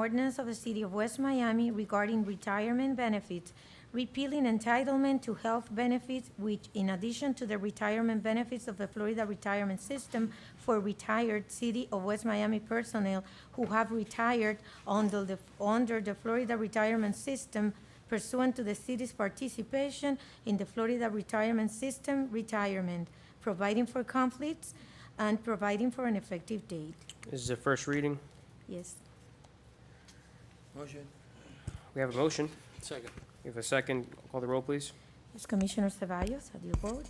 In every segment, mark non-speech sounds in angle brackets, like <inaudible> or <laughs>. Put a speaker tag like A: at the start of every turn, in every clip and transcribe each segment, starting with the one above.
A: ordinance of the City of West Miami regarding retirement benefits, repealing entitlement to health benefits, which in addition to the retirement benefits of the Florida retirement system for retired City of West Miami personnel who have retired under the, under the Florida retirement system pursuant to the city's participation in the Florida retirement system retirement, providing for conflicts, and providing for an effective date.
B: This is a first reading.
A: Yes.
C: Motion.
B: We have a motion.
C: Second.
B: We have a second. Call the roll, please.
A: Yes, Commissioner Cevallos, how do you vote?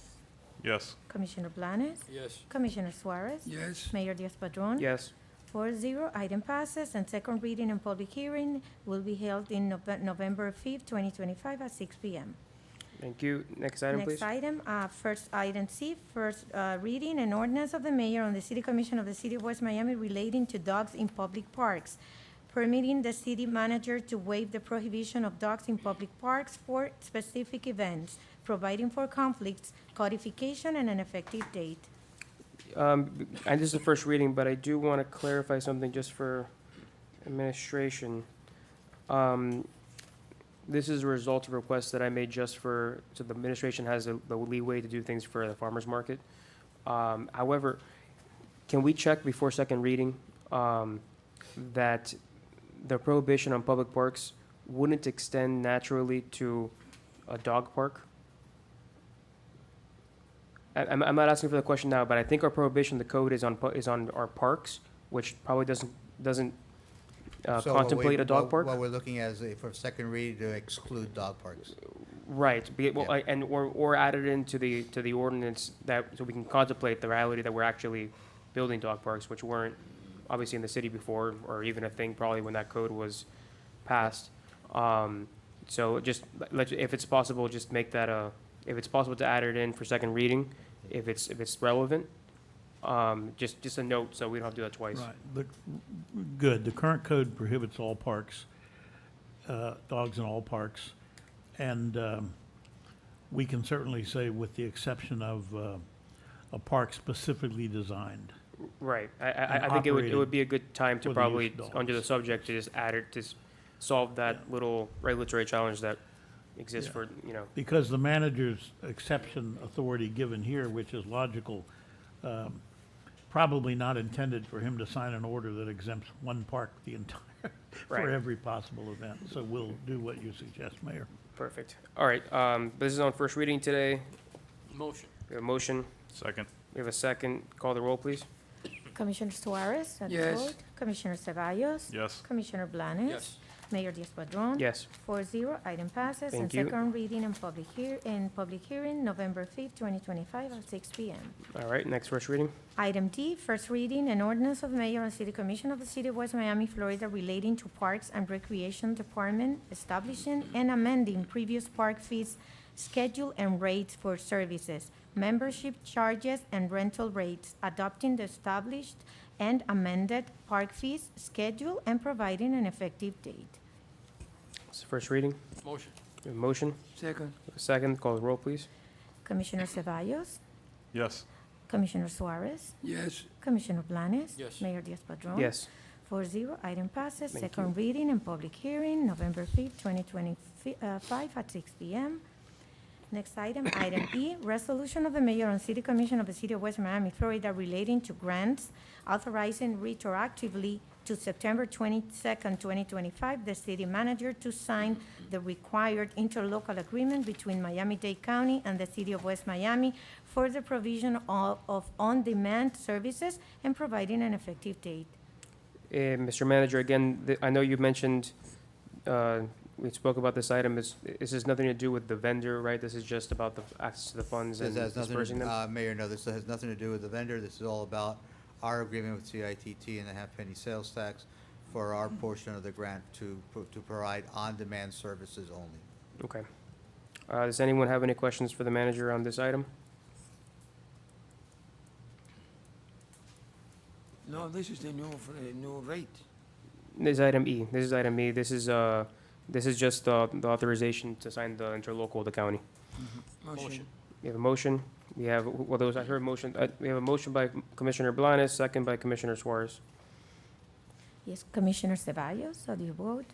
D: yes,
A: Commissioner Blanes?
C: Yes.
A: Commissioner Suarez?
C: Yes.
A: Mayor Diaz-Padrón?
B: Yes.
A: Four zero, item passes, and second reading and public hearing will be held in Nove- November fifth, twenty twenty-five at six P M.
B: Thank you. Next item, please.
A: Next item, uh, first item C, first, uh, reading an ordinance of the mayor on the city commission of the city of West Miami relating to dogs in public parks, permitting the city manager to waive the prohibition of dogs in public parks for specific events, providing for conflicts, codification, and an effective date.
B: Um, and this is the first reading, but I do want to clarify something just for administration. Um, this is a result of requests that I made just for, so the administration has the the leeway to do things for the farmer's market. Um, however, can we check before second reading, um, that the prohibition on public parks wouldn't extend naturally to a dog park? I- I'm, I'm not asking for the question now, but I think our prohibition, the code is on, pu- is on our parks, which probably doesn't, doesn't uh,
E: So what we-
B: contemplate a dog
E: what-
B: park.
E: What we're looking at is a- for second read to exclude dog parks.
B: Right, be, well,
E: Yeah.
B: I- and, or, or added into the, to the ordinance that, so we can contemplate the reality that we're actually building dog parks, which weren't obviously in the city before, or even a thing probably when that code was passed. Um, so just, let, if it's possible, just make that a, if it's possible to add it in for second reading, if it's, if it's relevant. Um, just, just a note, so we don't have to do that twice.
F: Right, but, good, the current code prohibits all parks, uh, dogs in all parks. And, um, we can certainly say with the exception of, uh, a park specifically designed.
B: Right, I,
F: And
B: I, I think it would, it would
F: operating
B: be a good time to
F: for the use
B: probably,
F: of
B: under the
F: dogs.
B: subject, to just add it, to s- solve that little regulatory challenge that exists
F: Yeah.
B: for, you know,
F: Because the manager's exception authority given here, which is logical, um, probably not intended for him to sign an order that exempts one park the entire, <laughs>
B: Right.
F: for every possible event. So we'll do what you suggest, Mayor.
B: perfect. All right, um, this is on first reading today,
C: Motion.
B: we have a motion,
D: second,
B: we have a second, call the roll, please.
A: Commissioner Suarez? how do you
C: Yes.
A: vote? Commissioner Cevallos?
D: yes,
A: Commissioner Blanes?
C: Yes.
A: Mayor Diaz-Padrón?
B: Yes,
A: Four zero, item passes.
B: Thank you.
A: And second reading and public hear, and public hearing, November fifth, twenty twenty-five, at six P M.
B: all right, next first reading,
A: Item D, first reading, an ordinance of mayor and city commission of the city of West Miami, Florida relating to parks and recreation department establishing and amending previous park fees, schedule and rates for services, membership charges and rental rates, adopting the established and amended park fees, schedule, and providing an effective date.
B: this is first reading,
C: Motion.
B: we have a motion,
C: Second.
B: we have a second, call the roll, please.
A: Commissioner Cevallos?
D: yes,
A: Commissioner Suarez?
C: Yes.
A: Commissioner Blanes?
C: Yes.
A: Mayor Diaz-Padrón?
B: Yes,
A: Four zero, item passes.
B: Thank
A: Second reading and public hearing, November fifth, twenty twenty-five, at six P M. Next item, item E, resolution of the mayor and city commission of the city of West Miami, Florida relating to grants authorizing retroactively to September twenty-second, twenty twenty-five, the city manager to sign the required interlocal agreement between Miami-Dade County and the city of West Miami for the provision of, of on-demand services and providing an effective date.
B: Eh, Mr. Manager, again, th- I know you mentioned, uh, we spoke about this item, this, this has nothing to do with the vendor, right? This is just about the access to the funds
E: This
B: and
E: has nothing,
B: dispersing
E: to-
B: them?
E: uh, Mayor, no, this has nothing to do with the vendor. This is all about our agreement with CITT and the half penny sales tax for our portion of the grant to, pro- to provide on-demand services only.
B: Okay. Uh, Does anyone have any questions for the manager on this item?
C: No, this is the new, fr- uh, new rate.
B: This is item E. This is item E. This is, uh, this is just uh, the authorization to sign the interlocal with the county.
C: Motion.
B: We have a motion. We have, well, those, I heard motion, uh, we have a motion by Commissioner Blanes, second by Commissioner Suarez.
A: Yes, Commissioner Ceballos, how do you vote?